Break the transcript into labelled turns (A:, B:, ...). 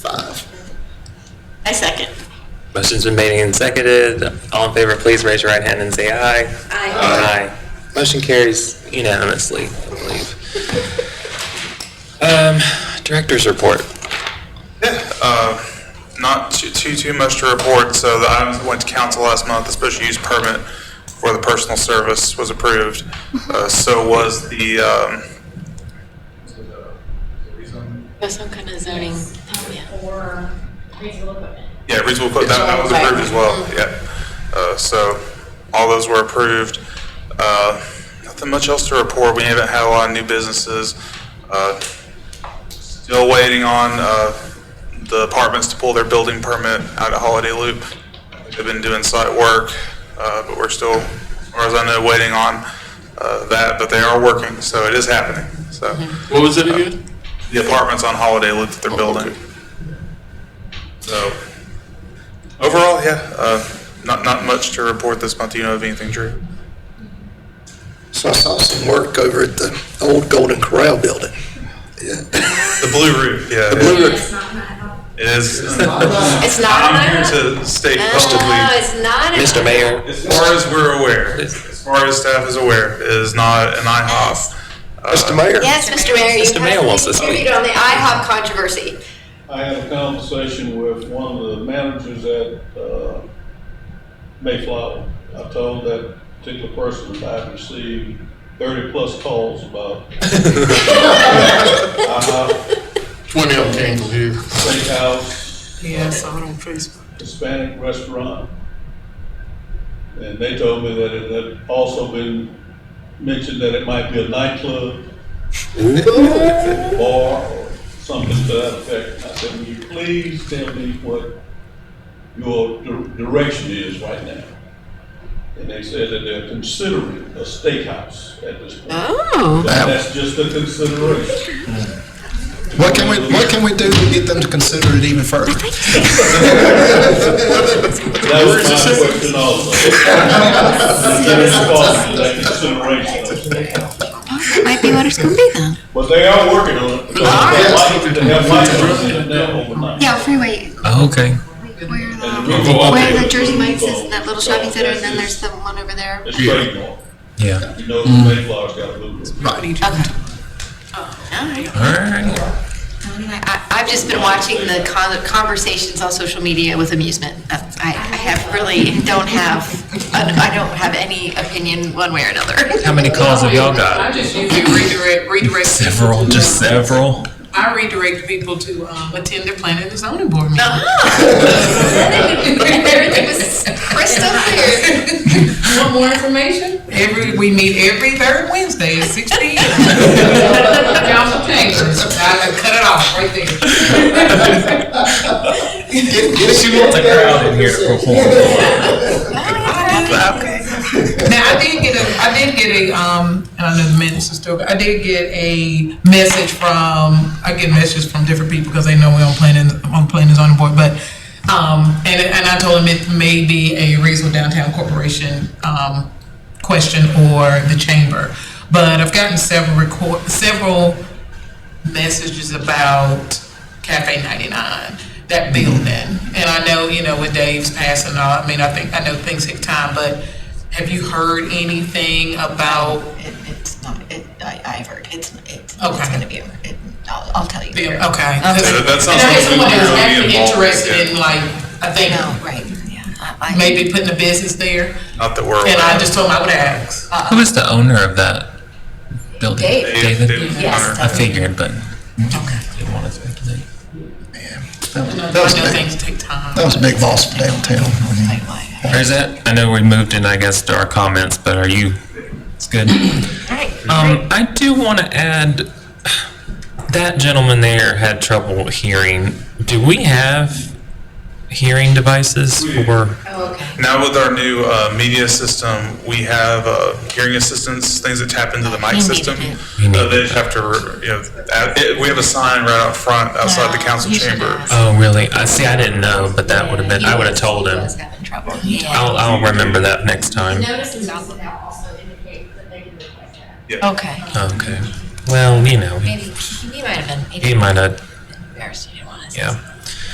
A: I second.
B: Motion's been made and seconded. All in favor, please raise your right hand and say aye. Aye. Motion carries unanimously, I believe. Um, Director's report.
C: not too, too, too much to report, so the items that went to council last month, the special use permit for the personal service was approved. Uh, so was the, um,
A: That's some kind of zoning. Oh, yeah.
D: or reasonable equipment.
C: yeah, reasonable, that, that was approved as well, yeah. Uh, so all those were approved. Uh, nothing much else to report. We haven't had a lot of new businesses. Uh, still waiting on, uh, the apartments to pull their building permit out of Holiday Loop. They've been doing site work, uh, but we're still, as far as I know, waiting on, uh, that, but they are working, so it is happening, so.
E: Mm-hmm. What was it again? Oh,
C: the apartments on Holiday Loop that they're building.
E: okay.
C: So, overall, yeah, uh, not, not much to report this month. Do you know of anything, Drew?
F: So I saw some work over at the old Golden Corral building.
C: The Blue Roof, yeah.
F: Blue Roof.
D: It's not my fault.
C: It is. I'm
A: It's not.
C: here to state
A: Oh,
C: publicly,
A: it's not.
B: Mr. Mayor,
C: as far as we're aware, as far as staff is aware, it is not an IHOP. Uh,
F: Mr. Mayor?
A: Yes, Mr. Mayor. you
B: Mr.
A: have
B: Mayor
A: to
B: wants to
A: contribute
B: speak.
A: On the IHOP controversy.
G: I had a conversation with one of the managers at uh, Mayflower. I told that particular person that I've received thirty-plus calls about. uh, IHOP,
E: Twenty of them came from here.
G: Steakhouse,
H: Yes, I'm on Facebook.
G: Hispanic restaurant. And they told me that it had also been mentioned that it might be a nightclub, bar, or something to that effect. I said, will you please tell me what your di- direction is right now? And they said that they're considering a steakhouse at this point.
A: Oh.
G: That- That's just a consideration.
I: What can we, what can we do to get them to consider it even further?
G: That was my question also. Is there any thought to that consideration of steakhouse?
A: Might be what it's gonna be then.
G: But they are working on it. They have lights- they have lights in it now overnight.
J: Yeah, freeway.
B: Oh, Okay.
J: Where
G: And
J: the,
G: the people out
J: where
G: there-
J: the Jersey Mike's is, and that little shopping center, and then there's the one over there.
G: It's trademark.
B: Yeah.
G: You know, the Mayflower's got a move.
B: All right.
A: I, I've just been watching the con- conversations on social media with amusement. That's- I, I have really don't have, I don't have any opinion one way or another.
B: How many calls have y'all
H: I
B: got?
H: just usually redirect, redirect.
B: Several,
H: people to,
B: just
H: uh,
B: several.
H: I redirect people to, um, attend their planning and zoning board meeting.
A: Everything was crystal clear.
H: Want more information? Every, we meet every third Wednesday at six P M. Y'all should change it. I I cut it off right there.
I: She wants a crowd in here to perform.
H: Okay. Now, I did get a, I did get a, um, and I know the minutes are still, I did get a message from, I get messages from different people because they know we're on planning, on planning zoning board, but, um, and, and I told them it may be a Reedsville Downtown Corporation, um, question or the chamber. But I've gotten several record, several messages about Cafe 99, that building. And I know, you know, with Dave's passing, all, I mean, I think, I know things take time, but have you heard anything about,
J: It's not, it, I, I've heard, it's, it's,
H: Okay.
J: it's gonna be, over. it, I'll, I'll tell you.
H: okay.
J: later.
H: That's-
C: That sounds
H: And
C: like
H: I guess someone
C: we
H: who's
C: really
H: actually
C: involved,
H: interested in
C: yeah.
H: like, I think,
J: No, right, yeah. I- I-
H: maybe putting a business there.
C: Not that we're aware.
H: And I just told him I would ask.
B: Who is the owner of that building?
J: Dave.
C: Dave- Dave Hunter.
J: Yes.
B: I figured, but didn't want to speculate.
H: I know things take time.
I: That was a big loss for downtown. I mean,
J: Why?
B: Or is that, I know we moved in, I guess, to our comments, but are you, it's good. Um, I do want to add, that gentleman there had trouble hearing. Do we have hearing devices or?
C: Now with our new uh, media system, we have uh, hearing assistants, things that tap into the mic system.
B: it.
C: Uh, They just have to, you know, add- it- we have a sign right out front outside the council chamber.
B: Oh, really? I see, I didn't know, but that would have been, I would have told him.
J: having trouble. Yeah.
B: I'll, I'll remember that next time.
D: Notices now also indicate that they can request that.
J: Okay.
B: Okay. Well, you know,
J: Maybe, he might have been,
B: he
J: maybe
B: might have,
J: embarrassed, he didn't want us.
B: yeah.